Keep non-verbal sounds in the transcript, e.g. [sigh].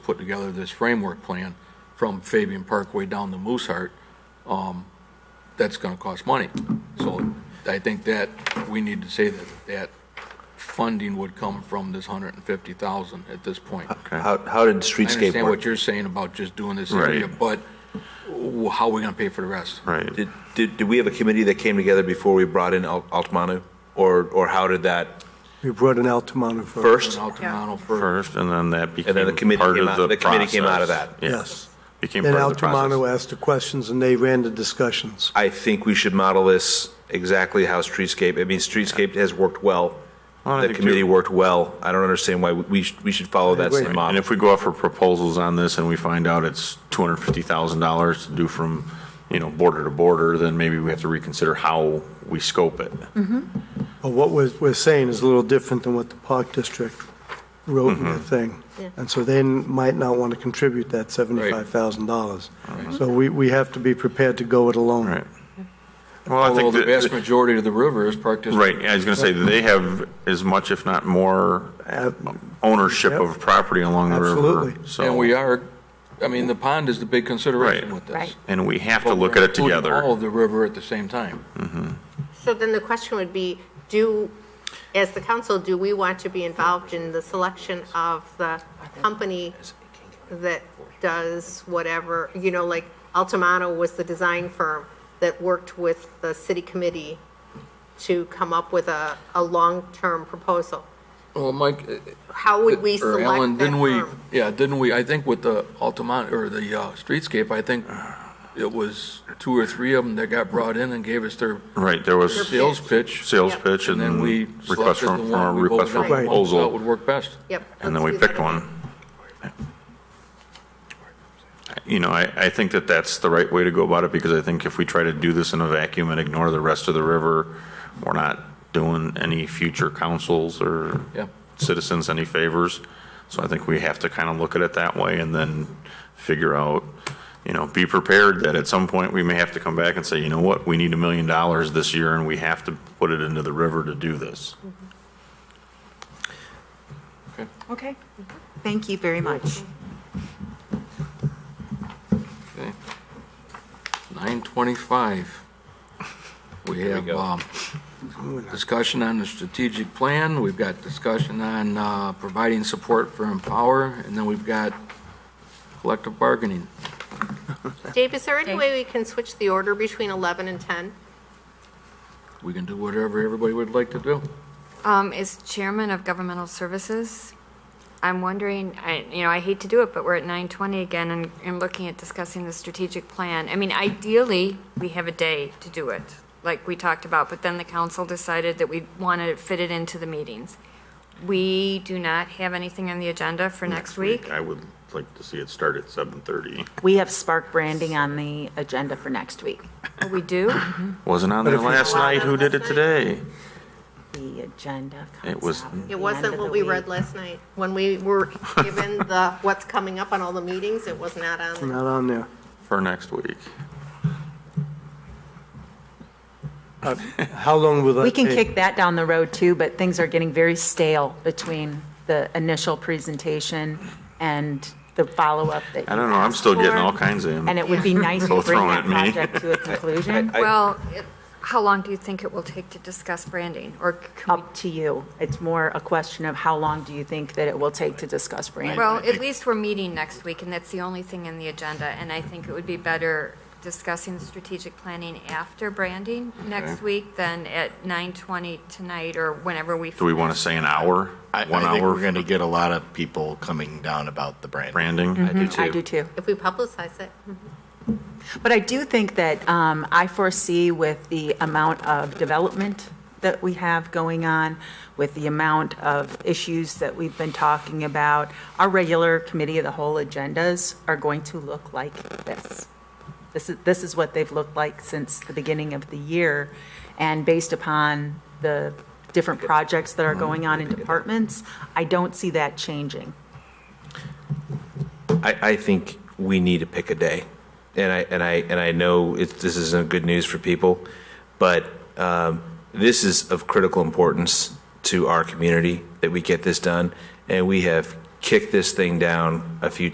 put together this framework plan from Fabian Parkway down to Mooseheart, um, that's gonna cost money. So I think that we need to say that, that funding would come from this hundred and fifty thousand at this point. How, how did I streetscape understand what work? you're saying about just doing this area, Right. but w- how are we gonna pay for the rest? Right. Did, did, did we have a committee that came together before we brought in Al- Altamanu? Or, or how did that We brought an Altamano first? first. Now to Mono for, First, and then that became then the committee part came of out- the the committee came out of process. that. Yeah. Yes. Became Then part of the Altamano process. asked the questions and they ran the discussions. I think we should model this exactly how streetscape, I mean, streetscape has worked well. Well, I The think committee too- worked well. I don't understand why we- we, should- we should follow that agree. same And model. if we go out for proposals on this and we find out it's two hundred fifty thousand dollars to do from, you know, border to border, then maybe we have to reconsider how we scope it. Mm-hmm. But what we're, we're saying is a little different than what the Park District wrote in their thing. And so they n- might not want to contribute that $75,000. So we, we have to be prepared to go it alone. Right. Well, I although think the vast that, majority of the river is Park District. right, I was gonna say, they have as much, if not more, Uh, ownership Yep. of property along the river. Absolutely. So- And we are, I mean, the pond is the big consideration Right. with this. Right. And we have to But look we're at it including together. All of the river at the same time. So then the question would be, do, as the council, do we want to be involved in the selection of the company that does whatever, you know, like Altamano was the design firm that worked with the city committee to come up with a, a long-term proposal? Well, Mike. uh, How would we or select that Alan, firm? didn't we? Yeah, didn't we, I think with the Altamont, or the uh, streetscape, I think it was two or three of them that got brought in and gave us their Right, there was sales pitch. sales Yep. pitch And and then we request selected for, the for a one we request voted for on, the one we thought would proposal, work best. Yep. and then let's we do that. picked one. You know, I, I think that that's the right way to go about it, because I think if we try to do this in a vacuum and ignore the rest of the river, we're not doing any future councils or Yeah. citizens any favors. So I think we have to kind of look at it that way and then figure out, you know, be prepared that at some point we may have to come back and say, you know what, we need a million dollars this year and we have to put it into the river to do this. Okay. Thank you very much. Okay. Nine twenty-five. We have, um, discussion on the strategic plan, we've got discussion on, uh, providing support for Empower, and then we've got collective bargaining. Dave, is there any way we can switch the order between 11 and 10? We can do whatever everybody would like to do. Um, is chairman of governmental services. I'm wondering, I, you know, I hate to do it, but we're at nine twenty again and, and looking at discussing the strategic plan. I mean, ideally, we have a day to do it, like we talked about, but then the council decided that we wanted to fit it into the meetings. We do not have anything on the agenda for next week. I would like to see it start at 7:30. We have Spark Branding on the agenda for next week. Oh, We do? Wasn't on there last night, who did it today? The agenda comes It was- out at the It end wasn't of what the we week. read last night. When we were given the, what's coming up on all the meetings, it was not [laughs] on there. Not on there. For next week. How long will that We take? can kick that down the road too, but things are getting very stale between the initial presentation and the follow-up that I you don't know, I'm asked still getting for. all kinds of And them. it [laughs] would be nice Throw to bring it that at me. project [laughs] to a conclusion, Well, it- how long do you think it will take to discuss branding or? can we- up to you. It's more a question of how long do you think that it will take to discuss branding? Well, at least we're meeting next week, and that's the only thing in the agenda, and I think it would be better discussing the strategic planning after branding next week than at 9:20 tonight or whenever we. Do we want to say an hour? I, One I think hour we're going to get a lot of people coming down about the brand. branding? I do too. I do too. If we publicize it, But I do think that um, I foresee with the amount of development that we have going on, with the amount of issues that we've been talking about, our regular committee of the whole agendas are going to look like this. This is, this is what they've looked like since the beginning of the year. And based upon the different projects that are going on in departments, I don't see that changing. I, I think we need to pick a day. And I, and I, and I know it, this isn't good news for people, but um, this is of critical importance to our community that we get this done. And we have kicked this thing down a few